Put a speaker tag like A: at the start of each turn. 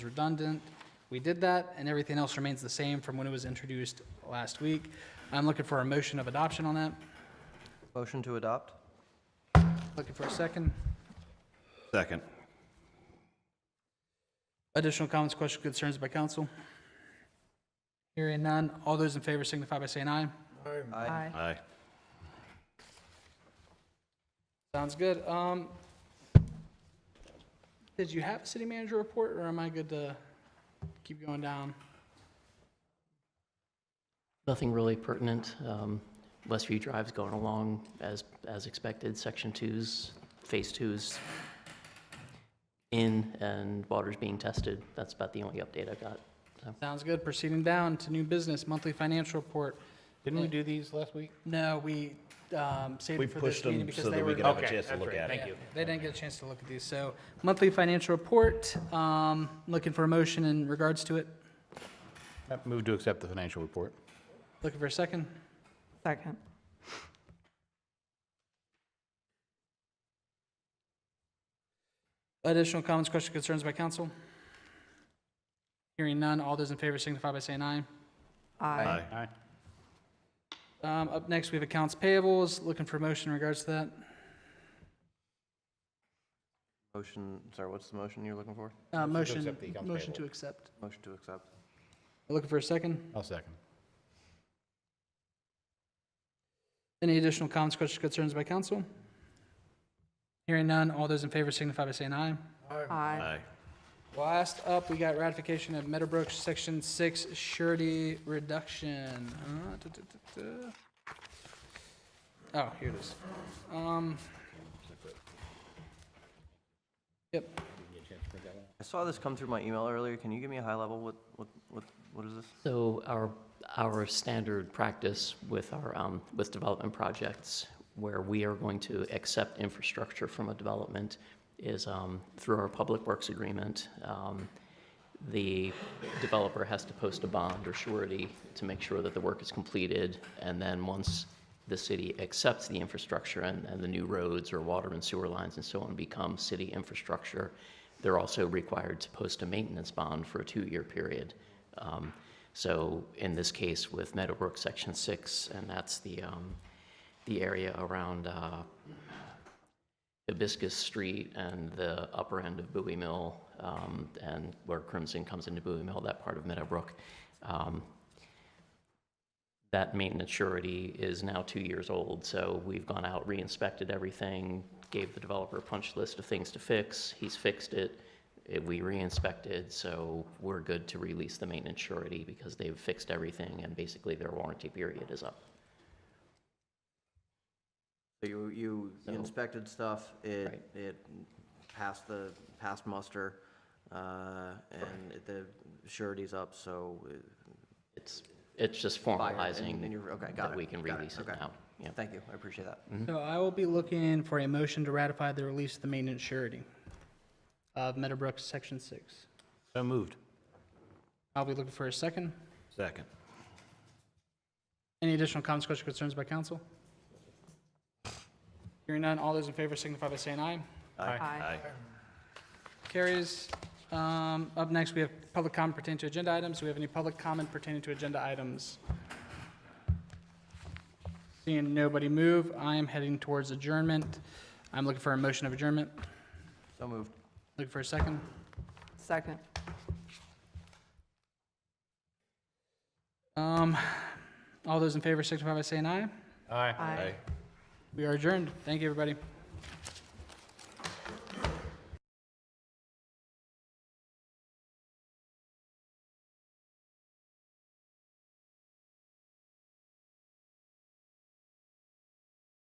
A: redundant. We did that, and everything else remains the same from when it was introduced last week. I'm looking for a motion of adoption on that.
B: Motion to adopt?
A: Looking for a second.
C: Second.
A: Additional comments, questions, concerns by council? Hearing none. All those in favor signify by saying aye.
B: Aye.
C: Aye.
A: Sounds good. Um, did you have a city manager report, or am I good to keep going down?
D: Nothing really pertinent. Um, Westview Drive's going along as, as expected. Section two's, phase two's in and water's being tested. That's about the only update I got. So,
A: Sounds good. Proceeding down to new business, monthly financial report.
E: Didn't we do these last week?
A: No, we um, saved
C: We
A: it for this
C: pushed
A: meeting
C: them
A: because
C: so
A: they
C: that we
A: were.
C: could have a
E: Okay,
C: chance to
E: that's
C: look
E: right.
C: at
E: Thank
C: it.
E: you.
A: Yeah, They didn't get a chance to look at these. So monthly financial report, um, looking for a motion in regards to it.
E: Move to accept the financial report.
A: Looking for a second.
F: Second.
A: Additional comments, questions, concerns by council? Hearing none. All those in favor signify by saying aye.
C: Aye.
E: Aye.
A: Um, Up next, we have accounts payables. Looking for a motion in regards to that.
B: Motion, sorry, what's the motion you're looking for?
A: Uh,
E: Motion to
A: Motion,
E: accept the accounts
A: motion
E: payable.
A: to accept.
B: Motion to accept.
A: Looking for a second.
E: I'll second.
A: Any additional comments, questions, concerns by council? Hearing none. All those in favor signify by saying aye.
F: Aye.
C: Aye.
A: Last up, we got ratification of Meadowbrook Section 6 surety reduction. Uh, duh, duh, duh, duh. Oh, here it is. Um, Yep,
B: I saw this come through my email earlier. Can you give me a high level? What, what, what, what is this?
D: so our, our standard practice with our, um, with development projects where we are going to accept infrastructure from a development is um, through our public works agreement. Um, the developer has to post a bond or surety to make sure that the work is completed. And then once the city accepts the infrastructure and, and the new roads or water and sewer lines and so on become city infrastructure, they're also required to post a maintenance bond for a two-year period. Um, so in this case with Meadowbrook Section Six, and that's the, um, the area around, uh, Hibiscus Street and the upper end of Bowie Mill, um, and where Crimson comes into Bowie Mill, that part of Meadowbrook. Um, That maintenance surety is now two years old, so we've gone out, re-inspected everything, gave the developer a punch list of things to fix, he's fixed it, it- we re-inspected, so we're good to release the maintenance surety because they've fixed everything and basically their warranty period is up.
B: So You, you
D: So-
B: inspected stuff, it,
D: Right.
B: it passed the, passed muster, uh, and it- the surety's up, so, uh,
D: It's, it's just
B: Fire, and-
D: formalizing
B: and you're- okay, got
D: that
B: it,
D: we can
B: got it,
D: release it
B: okay.
D: now. Yep.
B: thank you, I appreciate that.
A: so I will be looking for a motion to ratify the release of the maintenance surety of Meadowbrook Section 6.
E: So moved.
A: I'll be looking for a second.
C: Second.
A: Any additional comments, questions, concerns by council? Hearing none, all those in favor signify by saying aye.
C: Aye.
A: Carries. Um, Up next, we have public comment pertaining to agenda items. Do we have any public comment pertaining to agenda items? Seeing nobody move, I am heading towards adjournment. I'm looking for a motion of adjournment.
B: So moved.
A: Looking for a second.
F: Second.
A: Um, All those in favor signify by saying aye.
E: Aye.
F: Aye.
A: We are adjourned. Thank you, everybody.